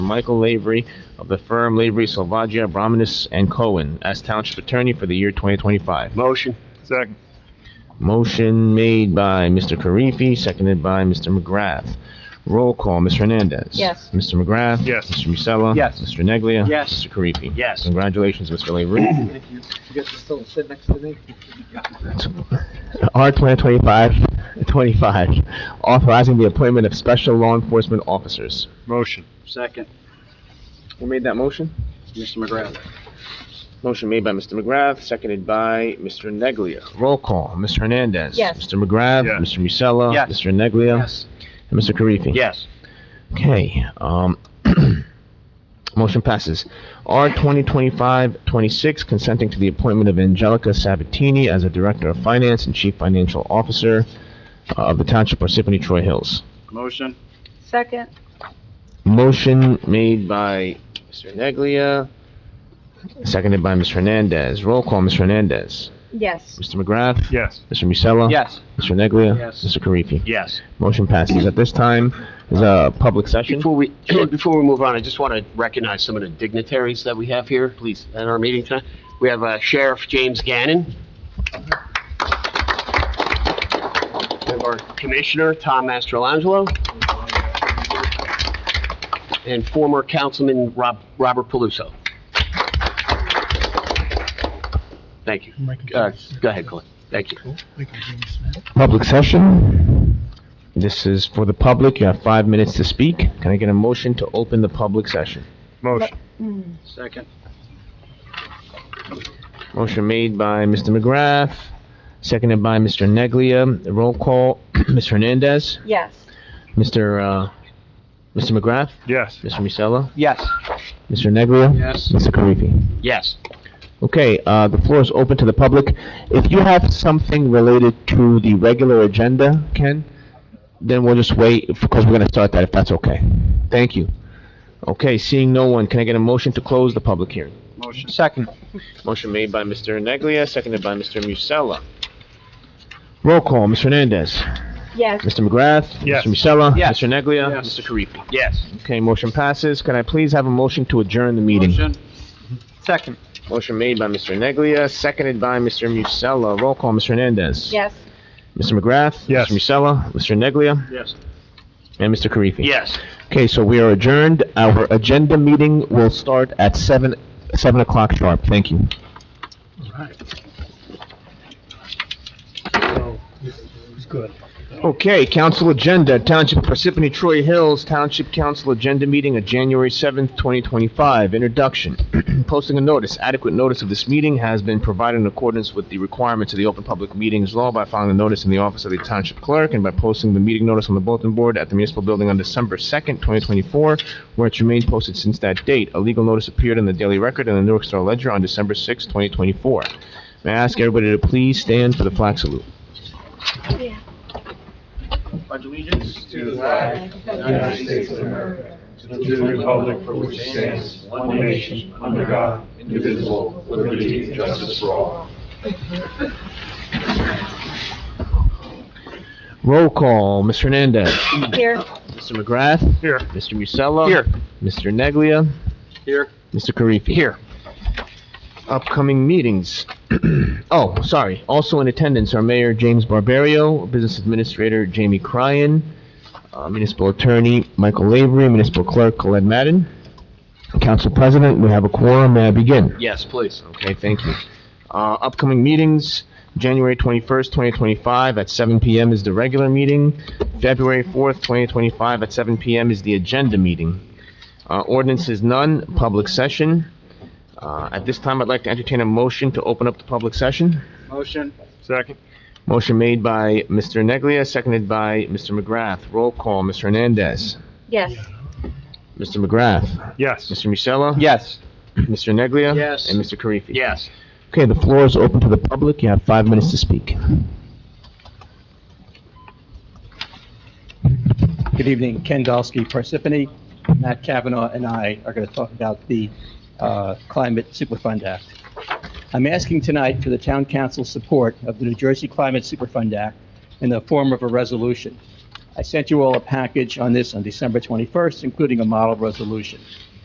Michael Lavery of the firm Lavery Salvaggio Brominus and Cohen as Township Attorney for the year 2025. Motion. Second. Motion made by Mr. Karifi, seconded by Mr. McGrath. Roll call, Ms. Hernandez. Yes. Mr. McGrath. Yes. Mr. Musella. Yes. Mr. Neglia. Yes. Mr. Karifi. Yes. Congratulations, Mr. Lavery. Thank you. You guys are still sit next to me? R 2025, 25, authorizing the appointment of special law enforcement officers. Motion. Second. Who made that motion? Mr. McGrath. Motion made by Mr. McGrath, seconded by Mr. Neglia. Roll call, Ms. Hernandez. Yes. Mr. McGrath. Yes. Mr. Musella. Yes. Mr. Neglia. And Mr. Karifi. Yes. Okay, um, motion passes. R 2025-26, consenting to the appointment of Angelica Sabatini as a Director of Finance and Chief Financial Officer uh, of the Township Parsippany Troy Hills. Motion. Second, Motion made by Mr. Neglia, seconded by Ms. Hernandez. Roll call, Ms. Hernandez. yes. Mr. McGrath? Yes. Mr. Musella? Yes. Mr. Neglia? Yes. Mr. Karifi? Yes. Motion passes. At this time, is a public session. Before we, before we move on, I just want to recognize some of the dignitaries that we have here, please, at our meeting tonight. We have uh, Sheriff James Gannon. We have our Commissioner, Tom Mastrolangelo. And former Councilman Rob, Robert Paluso. Thank you. Uh, Go ahead, Colin. Thank you. Public session. This is for the public. You have five minutes to speak. Can I get a motion to open the public session? Motion. Mm. Second. Motion made by Mr. McGrath, seconded by Mr. Neglia. Roll call, Ms. Hernandez, Yes. Mr. uh, Mr. McGrath, Yes. Mr. Musella, Yes. Mr. Neglia. Yes. Mr. Karifi. Yes. Okay, uh, the floor is open to the public. If you have something related to the regular agenda, Ken, then we'll just wait, because we're gonna start that, if that's okay. Thank you. Okay, seeing no one, can I get a motion to close the public hearing? Motion. Second. Motion made by Mr. Neglia, seconded by Mr. Musella. Roll call, Ms. Hernandez. Yes. Mr. McGrath. Yes. Mr. Musella. Yes. Mr. Neglia. Yes. Mr. Karifi. Yes. Okay, motion passes. Can I please have a motion to adjourn the meeting? Motion. Second. Motion made by Mr. Neglia, seconded by Mr. Musella. Roll call, Mr. Hernandez. Yes. Mr. McGrath. Yes. Mr. Musella, Mr. Neglia, Yes. and Mr. Karifi. Yes. Okay, so we are adjourned. Our agenda meeting will start at seven, seven o'clock sharp. Thank you. Okay, council agenda, Township of Parsippany Troy Hills Township Council Agenda Meeting of January 7th, 2025, introduction. Posting a notice, adequate notice of this meeting has been provided in accordance with the requirements of the Open Public Meetings Law by filing the notice in the office of the Township Clerk and by posting the meeting notice on the bulletin board at the municipal building on December 2nd, 2024, where it remained posted since that date. A legal notice appeared in the Daily Record and the Newark Star Ledger on December 6th, 2024. May I ask everybody to please stand for the flag salute? Pledge allegiance to the United States of America, to the republic for which it stands, one nation, under God, indivisible, with liberty and justice for all. Roll call, Ms. Hernandez. Here. Mr. McGrath? Here. Mr. Musella? Here. Mr. Neglia? Here. Mr. Karifi? Here. Upcoming meetings. Oh, sorry. Also in attendance are Mayor James Barbario, Business Administrator Jamie Cryan, uh, Municipal Attorney Michael Lavery, Municipal Clerk Colette Madden. Council President, we have a quorum. May I begin? Yes, please. Okay, thank you. Uh, upcoming meetings, January 21st, 2025 at 7 PM is the regular meeting. February 4th, 2025 at 7 PM is the agenda meeting. Uh, ordinance is none, public session. Uh, at this time, I'd like to entertain a motion to open up the public session. Motion. Second. Motion made by Mr. Neglia, seconded by Mr. McGrath. Roll call, Mr. Hernandez. Yes. Mr. McGrath. Yes. Mr. Musella. Yes. Mr. Neglia. Yes. And Mr. Karifi. Yes. Okay, the floor is open to the public. You have five minutes to speak. Good evening, Ken Dolsky, Parsippany. Matt Kavanaugh and I are going to talk about the uh, Climate Superfund Act. I'm asking tonight for the town council's support of the New Jersey Climate Superfund Act in the form of a resolution. I sent you all a package on this on December 21st, including a model resolution.